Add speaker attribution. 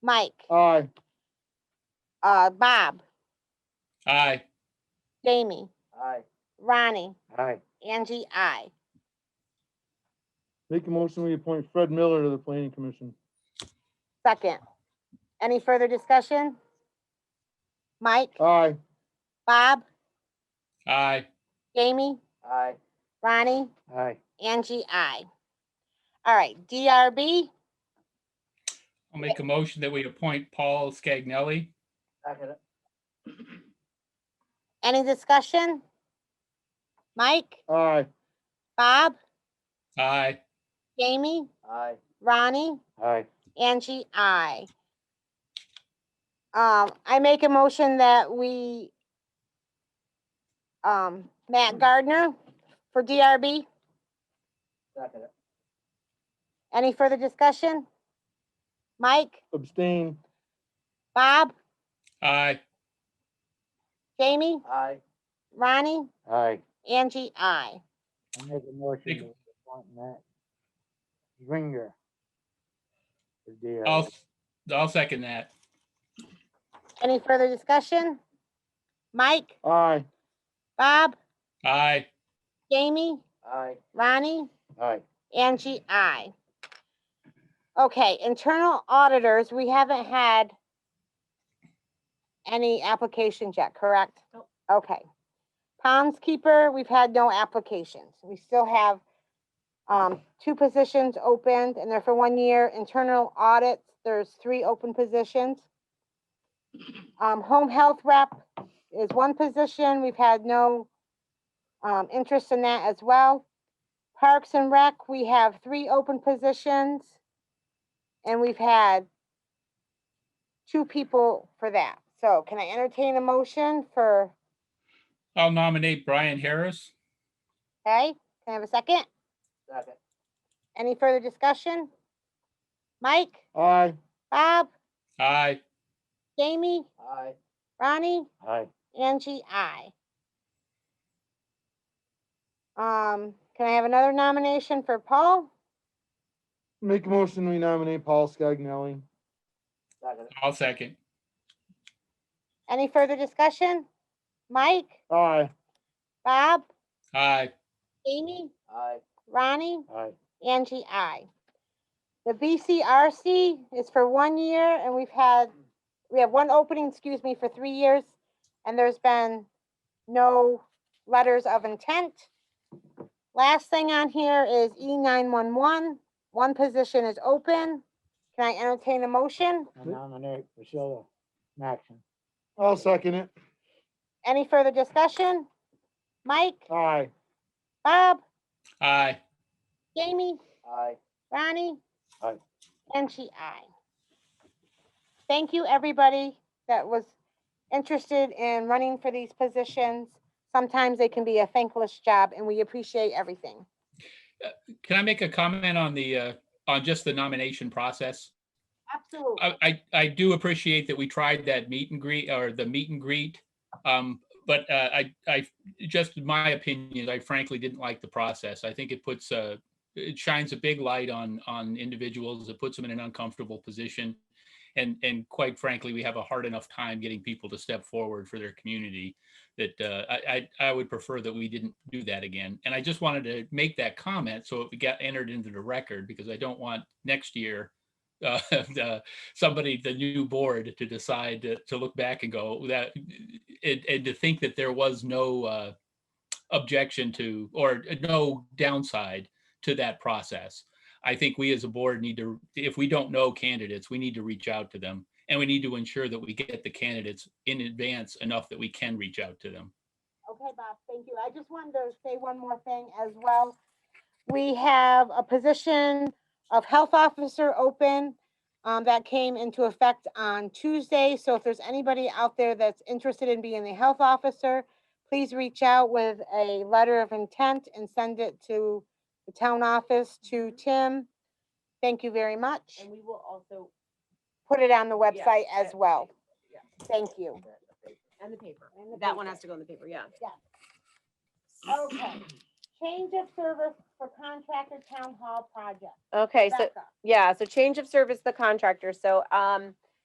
Speaker 1: Mike,
Speaker 2: Aye.
Speaker 1: uh, Bob,
Speaker 3: Aye.
Speaker 1: Jamie,
Speaker 2: Aye.
Speaker 1: Ronnie,
Speaker 2: Aye.
Speaker 1: Angie, I.
Speaker 2: Make a motion, we appoint Fred Miller to the planning commission.
Speaker 1: Second. Any further discussion? Mike,
Speaker 2: Aye.
Speaker 1: Bob,
Speaker 3: Aye.
Speaker 1: Jamie,
Speaker 2: Aye.
Speaker 1: Ronnie,
Speaker 2: Aye.
Speaker 1: Angie, I. All right, DRB,
Speaker 3: I'll make a motion that we appoint Paul Scagnelli.
Speaker 1: any discussion? Mike,
Speaker 2: Aye.
Speaker 1: Bob,
Speaker 3: Aye.
Speaker 1: Jamie,
Speaker 2: Aye.
Speaker 1: Ronnie,
Speaker 2: Aye.
Speaker 1: Angie, I. Um, I make a motion that we, um, Matt Gardner for DRB. Any further discussion? Mike,
Speaker 2: Abstain.
Speaker 1: Bob,
Speaker 3: Aye.
Speaker 1: Jamie,
Speaker 2: Aye.
Speaker 1: Ronnie,
Speaker 2: Aye.
Speaker 1: Angie, I.
Speaker 2: I make a
Speaker 3: Make-
Speaker 2: motion to appoint Matt Stringer. to the, uh,
Speaker 3: I'll, I'll second that.
Speaker 1: Any further discussion? Mike,
Speaker 2: Aye.
Speaker 1: Bob,
Speaker 3: Aye.
Speaker 1: Jamie,
Speaker 2: Aye.
Speaker 1: Ronnie,
Speaker 2: Aye.
Speaker 1: Angie, I. Okay, internal auditors, we haven't had any applications yet, correct? Okay. Keeper, we've had no applications. We still have um, two positions opened and they're for one year. Internal audits, there's three open positions. Um, home health rep is one position. We've had no um, interest in that as well. Parks and Rec, we have three open positions. And we've had two people for that. So can I entertain a motion for,
Speaker 3: I'll nominate Brian Harris.
Speaker 1: okay, can I have a second?
Speaker 2: Second.
Speaker 1: Any further discussion? Mike,
Speaker 2: Aye.
Speaker 1: Bob,
Speaker 3: Aye.
Speaker 1: Jamie,
Speaker 2: Aye.
Speaker 1: Ronnie,
Speaker 2: Aye.
Speaker 1: Angie, I. Um, can I have another nomination for Paul?
Speaker 2: Make a motion, we nominate Paul Scagnelli.
Speaker 3: I'll second.
Speaker 1: Any further discussion? Mike,
Speaker 2: Aye.
Speaker 1: Bob,
Speaker 3: Aye.
Speaker 1: Jamie,
Speaker 2: Aye.
Speaker 1: Ronnie,
Speaker 2: Aye.
Speaker 1: Angie, I. The BCRC is for one year and we've had, we have one opening, excuse me, for three years. And there's been no letters of intent. Last thing on here is E nine one one. One position is open. Can I entertain a motion?
Speaker 4: I nominate Priscilla Maxon.
Speaker 2: I'll second it.
Speaker 1: Any further discussion? Mike,
Speaker 2: Aye.
Speaker 1: Bob,
Speaker 3: Aye.
Speaker 1: Jamie,
Speaker 2: Aye.
Speaker 1: Ronnie?
Speaker 2: Aye.
Speaker 1: And she aye. Thank you, everybody that was interested in running for these positions. Sometimes they can be a thankless job and we appreciate everything.
Speaker 3: Can I make a comment on the, uh, on just the nomination process?
Speaker 1: Absolutely.
Speaker 3: I, I, I do appreciate that we tried that meet and greet or the meet and greet. Um, but uh, I, I, just in my opinion, I frankly didn't like the process. I think it puts a, it shines a big light on, on individuals. It puts them in an uncomfortable position. And, and quite frankly, we have a hard enough time getting people to step forward for their community that uh, I, I, I would prefer that we didn't do that again. And I just wanted to make that comment so it got entered into the record because I don't want next year uh, the, somebody, the new board, to decide to, to look back and go that, and, and to think that there was no uh, objection to or no downside to that process. I think we as a board need to, if we don't know candidates, we need to reach out to them. And we need to ensure that we get the candidates in advance enough that we can reach out to them.
Speaker 1: Okay, Bob, thank you. I just wanted to say one more thing as well. We have a position of health officer open um, that came into effect on Tuesday. So if there's anybody out there that's interested in being a health officer, please reach out with a letter of intent and send it to the town office to
Speaker 5: Mm-hmm.
Speaker 1: Tim. Thank you very much.
Speaker 5: And we will also,
Speaker 1: Put it on the
Speaker 5: Yeah,
Speaker 1: website as
Speaker 5: that-
Speaker 1: well.
Speaker 5: yeah.
Speaker 1: Thank you.
Speaker 5: and the paper.
Speaker 1: And the
Speaker 5: That one
Speaker 1: paper.
Speaker 5: has to go in the paper, yeah.
Speaker 1: Okay. Change of service for contractor town hall project.
Speaker 5: Okay, so,
Speaker 1: Becca.
Speaker 5: yeah, so change of service, the contractor, so, um,